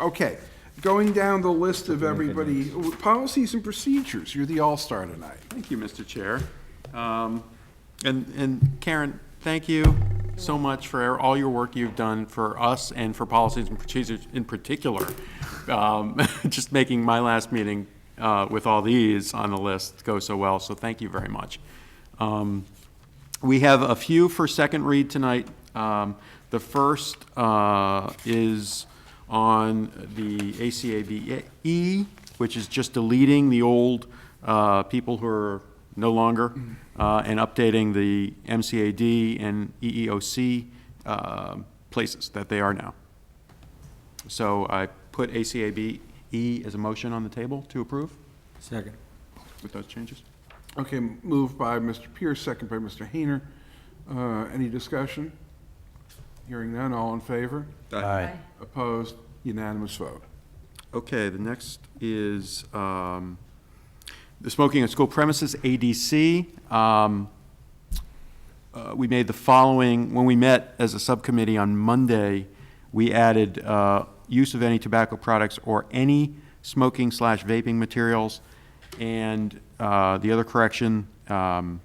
Okay, going down the list of everybody, policies and procedures, you're the all-star tonight. Thank you, Mr. Chair. Um, And, and Karen, thank you so much for all your work you've done for us and for policies and procedures in particular. Um, Just making my last meeting uh, with all these on the list go so well, so thank you very much. Um, We have a few for second read tonight. Um, The first uh, is on the ACABE, E, which is just deleting the old uh, people who are no longer, uh, and updating the MCAD and E EEOC uh, places that they are now. So I put ACABE E as a motion on the table to approve Second. with those changes. Okay, moved by Mr. Pierce, second by Mr. Hayner. Uh, Any discussion? Hearing none, all in favor? Aye. Opposed? Unanimous vote. Okay, the next is um, the smoking on school premises, ADC. Um, uh, We made the following, when we met as a subcommittee on Monday, we added uh, use of any tobacco products or any smoking slash vaping materials. And uh, the other correction, um,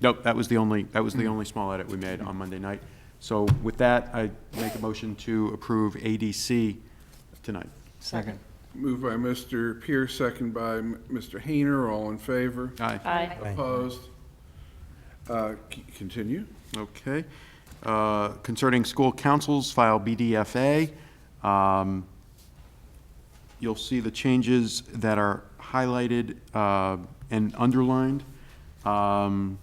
nope, that was the only, that was the only small edit we made on Monday night. So with that, I make a motion to approve ADC tonight. Second. Moved by Mr. Pierce, second by M- Mr. Hayner, all in favor? Aye. Aye. Opposed? Uh, c- Continue. Okay. Uh, Concerning school councils, file BDFA. um, You'll see the changes that are highlighted uh, and underlined. Um,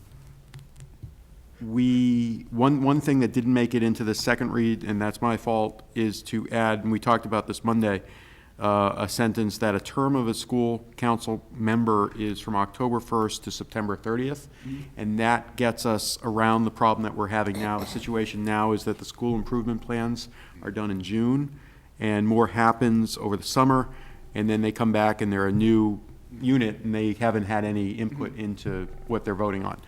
We, one, one thing that didn't make it into the second read, and that's my fault, is to add, and we talked about this Monday, uh, a sentence that a term of a school council member is from October 1st to September 30th. And that gets us around the problem that we're having now. The situation now is that the school improvement plans are done in June, and more happens over the summer, and then they come back and they're a new unit, and they haven't had any input into what they're voting on.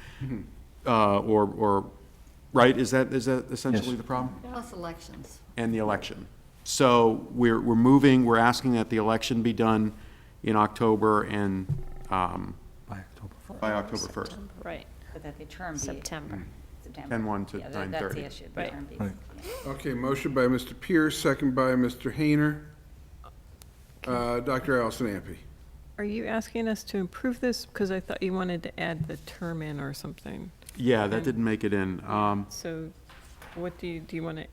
Uh, Or, or, right, is that, is that essentially the problem? Plus elections. and the election. So we're, we're moving, we're asking that the election be done in October and, um, By October fourth. by October 1st. Right, But that the term be. September. September. 10-1 to Yeah, that- That's 9:30. the issue, the Right. term be. Right. Okay, motion by Mr. Pierce, second by Mr. Hayner. Uh, Dr. Allison Ampe. Are you asking us to improve this? Because I thought you wanted to add the term in or something. Yeah, that didn't make it in. Um, So what do you, do you want to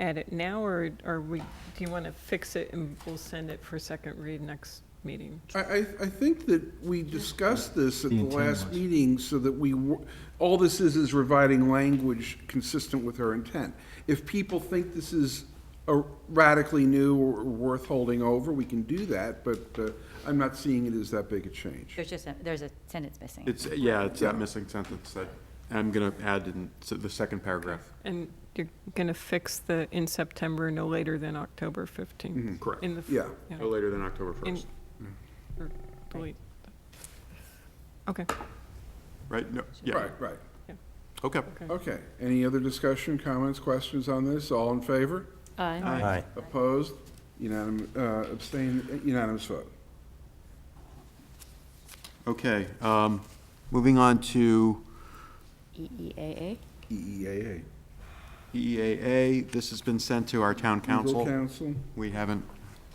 add it now or are we, do you want to fix it and we'll send it for second read next meeting? I, I, I think that we discussed this at The the intent last was. meeting so that we, w- all this is, is reviving language consistent with her intent. If people think this is a radically new or worth holding over, we can do that, but uh, I'm not seeing it as that big a change. There's just, a there's a sentence missing. It's, yeah, it's that missing sentence that I'm going to add in s- the second paragraph. And you're going to fix the in September, no later than October 15th? Mm-hmm. Correct. In the f- Yeah. yeah, No later than Mm-hmm. October in- 1st, or delete. Okay, right? No, yeah, Right, right. okay. Okay. Any other discussion, comments, questions on this? All in favor? Mm. Aye. Aye. Opposed? Unanimous, uh, abstain, unanimous vote. Okay, um, moving on to E EEAA? E EEAA. EEAA. E This has been sent to our town council. Legal counsel? We haven't,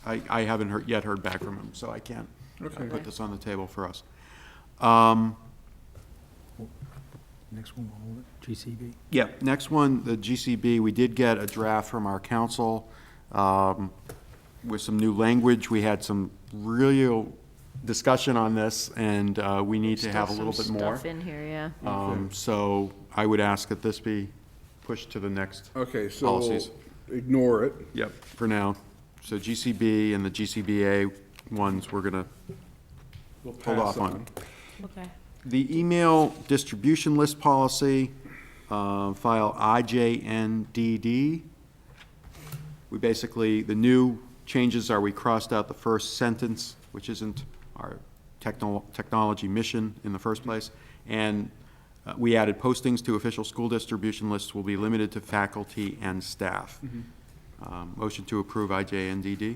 I, I haven't heard, yet heard back from him, so I can't uh, Okay. put this on the table for us. Um, Next one, we'll hold it, GCB. Yeah, next one, the GCB, we did get a draft from our council um, with some new language. We had some real discussion on this, and uh, we need to have a little bit more. Stuff in here, yeah. Um, So I would ask that this be pushed to the next. Okay, so we'll Policies. ignore it. Yep, for now. So GCB and the GCBA ones, we're going to We'll hold pass off on. Okay. The email distribution list policy, uh, file IJNDD. We basically, the new changes are we crossed out the first sentence, which isn't our techno- technology mission in the first place, and uh, we added postings to official school distribution lists will be limited to faculty and staff. Um, Motion to approve IJNDD.